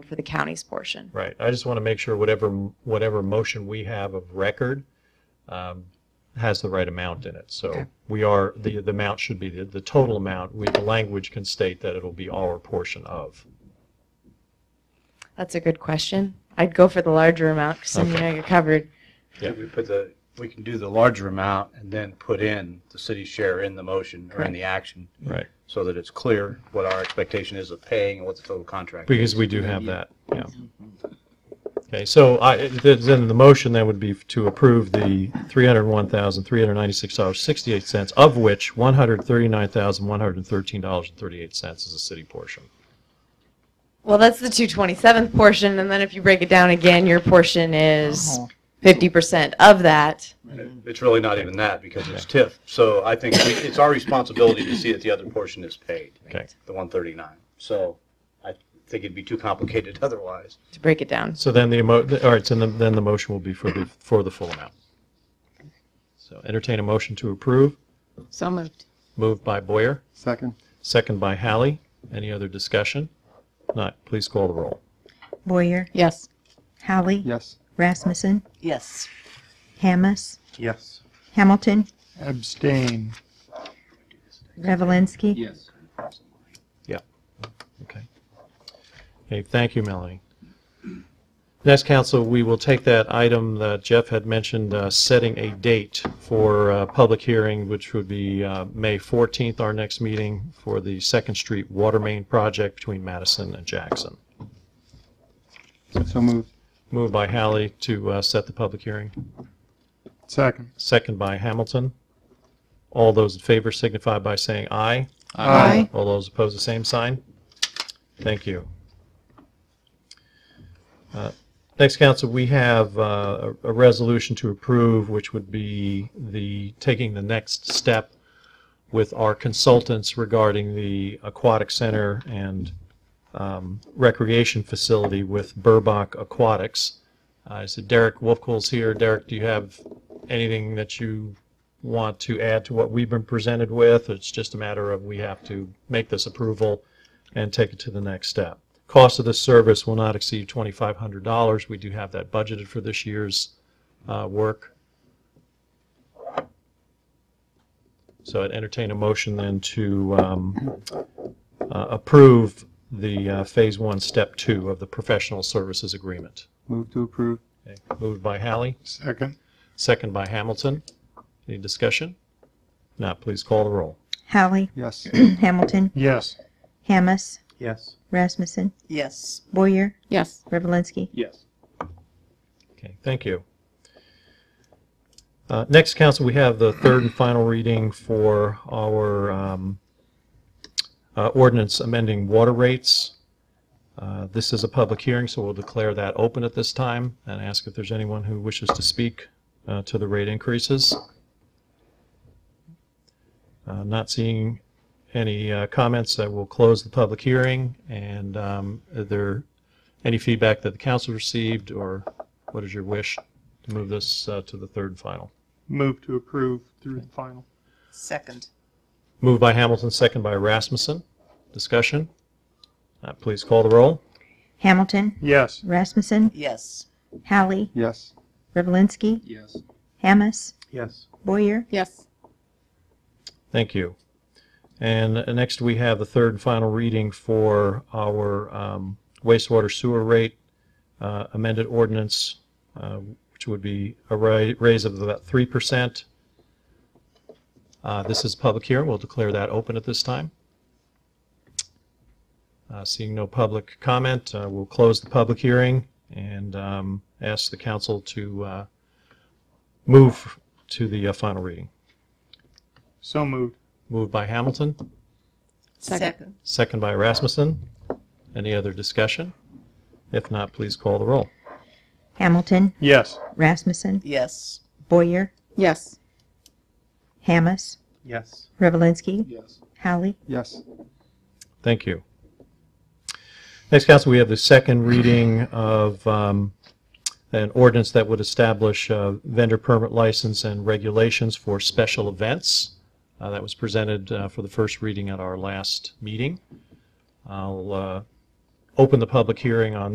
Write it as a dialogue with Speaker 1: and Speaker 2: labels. Speaker 1: for the county's portion.
Speaker 2: Right, I just want to make sure whatever, whatever motion we have of record um, has the right amount in it. So
Speaker 1: Okay.
Speaker 2: we are, the, the amount should be, the, the total amount, we, the language can state that it'll be our portion of.
Speaker 1: That's a good question. I'd go for the larger amount because then you
Speaker 2: Okay.
Speaker 1: know you're covered.
Speaker 2: Yeah.
Speaker 3: We put the, we can do the larger amount and then put in the city's share in the motion or in the action
Speaker 2: Right.
Speaker 3: so that it's clear what our expectation is of paying and what the total contract is.
Speaker 2: Because we do have that, yeah. Okay, so I, th- then the motion then would be to approve the $301,396.68, of which $139,113.38 is the city portion.
Speaker 1: Well, that's the 227th portion, and then if you break it down again, your portion is 50% of that.
Speaker 3: It's really not even that because it's TIF. So I think we- it's our responsibility to see that the other portion is paid,
Speaker 2: Okay,
Speaker 3: the 139. So I think it'd be too complicated otherwise.
Speaker 1: to break it down.
Speaker 2: so then the, emo- all right, so then then the motion will be for the, for the full amount. So entertain a motion to approve,
Speaker 4: So moved.
Speaker 2: moved by Boyer,
Speaker 5: Second?
Speaker 2: second by Hallie. Any other discussion? Not, please call the roll.
Speaker 6: Boyer,
Speaker 4: Yes.
Speaker 6: Hallie,
Speaker 5: Yes.
Speaker 6: Rasmussen,
Speaker 4: Yes.
Speaker 6: Hammes,
Speaker 5: Yes.
Speaker 6: Hamilton,
Speaker 5: Abstain.
Speaker 6: Revelinsky.
Speaker 5: Yes.
Speaker 2: Okay. Okay, thank you, Melanie. Next, council, we will take that item that Jeff had mentioned, uh, setting a date for uh, public hearing, which would be uh, May 14th, our next meeting for the Second Street Water Main Project between Madison and Jackson.
Speaker 5: So moved.
Speaker 2: Moved by Hallie to uh, set the public hearing,
Speaker 5: Second?
Speaker 2: second by Hamilton. All those in favor signify by saying aye.
Speaker 4: Aye.
Speaker 2: All those opposed, the same sign. Thank you. Uh, Next, council, we have uh, a a resolution to approve, which would be the, taking the next step with our consultants regarding the aquatic center and um, recreation facility with Burbach Aquatics. Uh, I said Derek Wolfcole's here. Derek, do you have anything that you want to add to what we've been presented with. It's just a matter of we have to make this approval and take it to the next step. Cost of this service will not exceed $2,500. We do have that budgeted for this year's uh, work. So I'd entertain a motion then to um, uh, approve the uh, Phase 1, Step 2 of the professional services agreement.
Speaker 5: Move to approve.
Speaker 2: Okay. Moved by Hallie.
Speaker 5: Second?
Speaker 2: Second by Hamilton. Any discussion? Not, please call the roll.
Speaker 6: Hallie,
Speaker 5: Yes.
Speaker 6: Hamilton,
Speaker 5: Yes.
Speaker 6: Hammes,
Speaker 5: Yes.
Speaker 6: Rasmussen,
Speaker 4: Yes.
Speaker 6: Boyer,
Speaker 4: Yes.
Speaker 6: Revelinsky.
Speaker 5: Yes.
Speaker 2: Okay, thank you. Uh, Next, council, we have the third and final reading for our um, uh, ordinance amending water rates. Uh, This is a public hearing, so we'll declare that open at this time and ask if there's anyone who wishes to speak uh, to the rate increases. Uh, Not seeing any uh, comments, I will close the public hearing. And um, are there any feedback that the council received or what is your wish to move this uh, to the third and final?
Speaker 5: Move to approve through the final.
Speaker 4: Second.
Speaker 2: Moved by Hamilton, second by Rasmussen. Discussion? Uh, Please call the roll.
Speaker 6: Hamilton,
Speaker 5: Yes.
Speaker 6: Rasmussen,
Speaker 4: Yes.
Speaker 6: Hallie,
Speaker 5: Yes.
Speaker 6: Revelinsky,
Speaker 5: Yes.
Speaker 6: Hammes,
Speaker 5: Yes.
Speaker 6: Boyer,
Speaker 4: Yes.
Speaker 2: Thank you. And uh, next, we have the third and final reading for our um, wastewater sewer rate uh, amended ordinance, uh, which would be a ra- raise of about 3%. Uh, This is public hearing. We'll declare that open at this time. Uh, Seeing no public comment, uh, we'll close the public hearing and um, ask the council to uh, move to the uh, final reading.
Speaker 5: So moved.
Speaker 2: Moved by Hamilton,
Speaker 4: Second.
Speaker 2: second by Rasmussen. Any other discussion? If not, please call the roll.
Speaker 6: Hamilton,
Speaker 5: Yes.
Speaker 6: Rasmussen,
Speaker 4: Yes.
Speaker 6: Boyer,
Speaker 4: Yes.
Speaker 6: Hammes,
Speaker 5: Yes.
Speaker 6: Revelinsky,
Speaker 5: Yes.
Speaker 6: Hallie,
Speaker 5: Yes.
Speaker 2: Thank you. Next, council, we have the second reading of um, an ordinance that would establish uh, vendor permit license and regulations for special events. Uh, That was presented uh, for the first reading at our last meeting. I'll uh, open the public hearing on